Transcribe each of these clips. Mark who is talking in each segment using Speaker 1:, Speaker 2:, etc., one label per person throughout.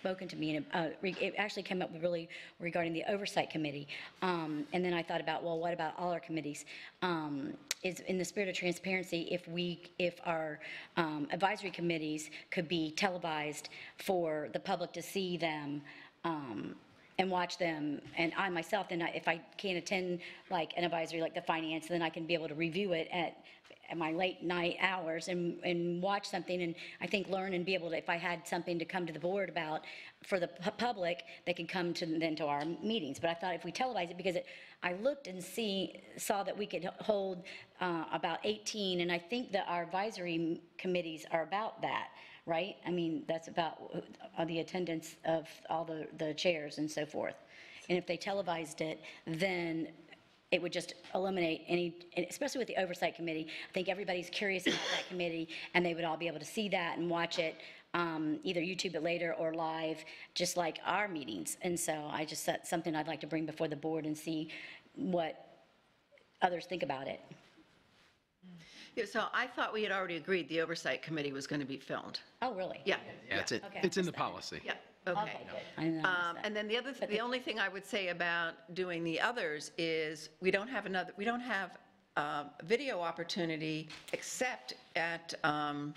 Speaker 1: spoken to me, and uh, re- it actually came up really regarding the Oversight Committee. Um, And then I thought about, well, what about all our committees? Um, Is, in the spirit of transparency, if we, if our um, advisory committees could be televised for the public to see them, um, and watch them, and I myself, then I- if I can't attend like an advisory like the finance, then I can be able to review it at, at my late night hours and, and watch something, and I think learn and be able to, if I had something to come to the board about for the pu- public, they could come to, then to our meetings, but I thought if we televised it, because it, I looked and see, saw that we could hold uh, about 18, and I think that our advisory committees are about that, right? I mean, that's about uh, the attendance of all the, the chairs and so forth. And if they televised it, then it would just eliminate any, and especially with the oversight committee. I think everybody's curious about that committee, and they would all be able to see that and watch it, um, either YouTube it later or live, just like our meetings. And so I just, that's something I'd like to bring before the board and see what others think about it.
Speaker 2: Yeah, so I thought we had already agreed the oversight committee was going to be filmed.
Speaker 1: Oh, really?
Speaker 2: Yeah,
Speaker 3: Yeah, it's, in-
Speaker 1: Okay, I
Speaker 3: it's in the
Speaker 1: missed that.
Speaker 3: policy.
Speaker 2: yeah,
Speaker 1: Okay,
Speaker 2: okay.
Speaker 1: good. I didn't notice
Speaker 2: Um,
Speaker 1: that.
Speaker 2: And then the other, the only thing I would say about doing the others is, we don't have another, we don't have um, video opportunity except at um,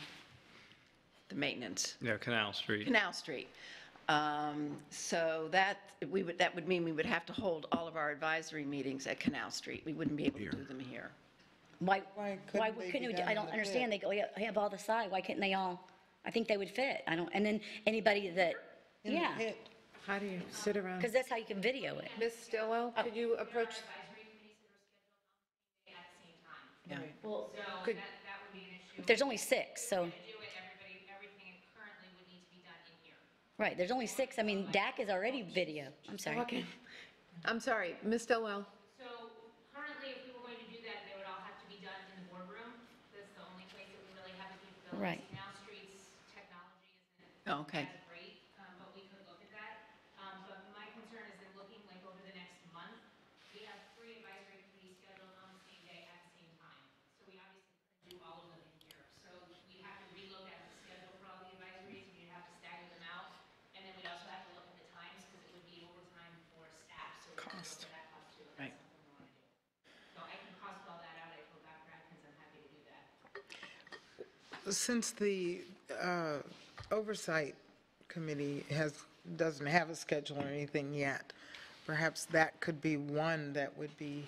Speaker 2: the maintenance,
Speaker 4: Yeah, Canal Street.
Speaker 2: Canal Street. Um, So that, we would, that would mean we would have to hold all of our advisory meetings at Canal Street. We wouldn't be able to do them here.
Speaker 1: Why, why
Speaker 5: Why couldn't they be
Speaker 1: couldn't, we do-
Speaker 5: down
Speaker 1: I
Speaker 5: in
Speaker 1: don't
Speaker 5: the
Speaker 1: understand, they go, "Yeah, I have all the side, why couldn't they all, I think they would fit, I don't, and then anybody that,
Speaker 5: in the
Speaker 1: yeah,
Speaker 5: pit.
Speaker 6: How do you sit around?
Speaker 1: because that's how you can video it.
Speaker 6: Ms. Stilwell, could you approach,
Speaker 2: Yeah.
Speaker 6: could,
Speaker 1: There's only six, so,
Speaker 7: do it, everybody, everything currently would need to be done in here.
Speaker 1: right, there's only six, I mean, DAC is already video, I'm sorry.
Speaker 6: okay. I'm sorry, Ms. Stilwell,
Speaker 7: So currently, if we were going to do that, they would all have to be done in the boardroom. That's the only place that we really have the
Speaker 1: Right.
Speaker 7: capabilities. Now, streets, technology isn't
Speaker 2: Oh, Okay.
Speaker 7: as great, um, but we could look at that. Um, But my concern is that looking like over the next month, we have three advisory committees scheduled on the same day at the same time. So we obviously couldn't do all of them in here. So we have to relook at the schedule for all the advisories, we'd have to stagger them out. And then we'd also have to look at the times because it would be overtime for staff. So we'd have to look at that cost too. if
Speaker 2: Right.
Speaker 7: that's something we want to do. So I can cost all that out. I told Dr. Atkins I'm happy to do that.
Speaker 5: Since the uh, Oversight Committee has, doesn't have a schedule or anything yet, perhaps that could be one that would be,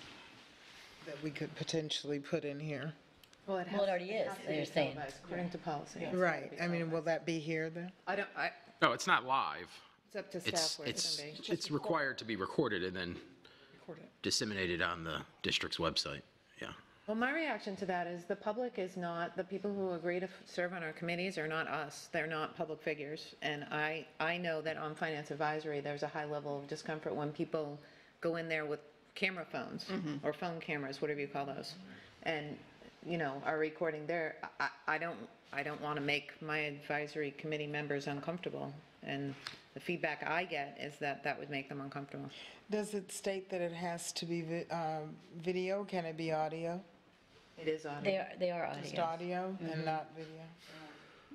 Speaker 5: that we could potentially put in here.
Speaker 6: well,
Speaker 1: Well,
Speaker 6: it
Speaker 1: it
Speaker 6: has,
Speaker 1: already is, they're saying,
Speaker 6: according to policy.
Speaker 5: Right, I mean, will that be here then?
Speaker 6: I don't, I,
Speaker 3: No, it's not live.
Speaker 6: it's up to
Speaker 3: It's,
Speaker 6: staff where it's
Speaker 3: it's,
Speaker 6: going to be.
Speaker 3: it's required to be recorded and then disseminated on the district's website. Yeah.
Speaker 6: Well, my reaction to that is the public is not, the people who agree to f- serve on our committees are not us. They're not public figures. And I, I know that on finance advisory, there's a high level of discomfort when people go in there with camera phones or phone cameras, whatever you call those. And, you know, are recording there. I- I, I don't, I don't want to make my advisory committee members uncomfortable. And the feedback I get is that that would make them uncomfortable.
Speaker 5: Does it state that it has to be vi- um, video? Can it be audio?
Speaker 6: It is on.
Speaker 1: they are, they are
Speaker 5: Just
Speaker 1: audio
Speaker 5: audio and not video?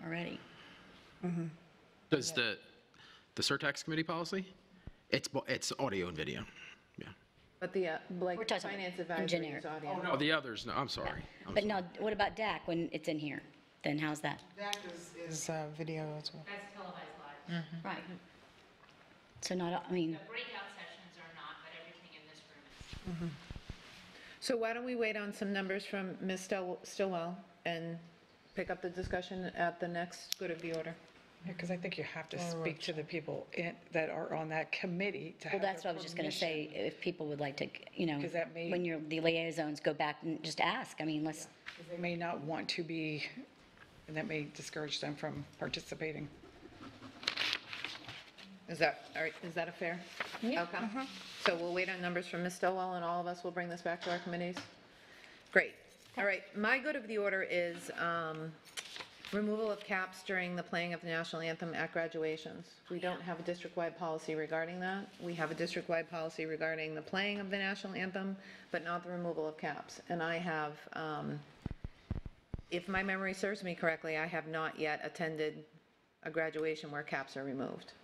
Speaker 1: already.
Speaker 3: Does the, the surtax committee policy? It's, bo- it's audio and video. Yeah.
Speaker 6: But the, uh,
Speaker 1: We're
Speaker 6: like,
Speaker 1: talking
Speaker 6: finance
Speaker 1: in
Speaker 6: advisory
Speaker 1: generic.
Speaker 6: is audio.
Speaker 3: Oh, the others, no, I'm sorry. I'm
Speaker 1: But
Speaker 3: sorry.
Speaker 1: now, what about DAC when it's in here? Then how's that?
Speaker 5: That is. Is uh, video as well.
Speaker 7: That's televised live.
Speaker 1: Right. So not, I mean,
Speaker 7: The breakout sessions are not, but everything in this room is.
Speaker 6: So why don't we wait on some numbers from Ms. Stil- Stillwell and pick up the discussion at the next good of the order?
Speaker 8: Because I think you have to speak to the people in- that are on that committee to
Speaker 1: well,
Speaker 8: have
Speaker 1: that's what I
Speaker 8: their
Speaker 1: was just gonna
Speaker 8: permission.
Speaker 1: say, if people would like to, you know,
Speaker 8: Because that may-
Speaker 1: when you're, the liaisons, go back and just ask, I mean, let's,
Speaker 8: They may not want to be, and that may discourage them from participating.
Speaker 6: Is that, all right, is that a fair? Yeah. Okay. So we'll wait on numbers from Ms. Stillwell, and all of us will bring this back to our committees? Great. All right, my good of the order is um, removal of caps during the playing of the national anthem at graduations. We don't have a district-wide policy regarding that. We have a district-wide policy regarding the playing of the national anthem, but not the removal of caps. And I have, um, if my memory serves me correctly, I have not yet attended a graduation where caps are removed.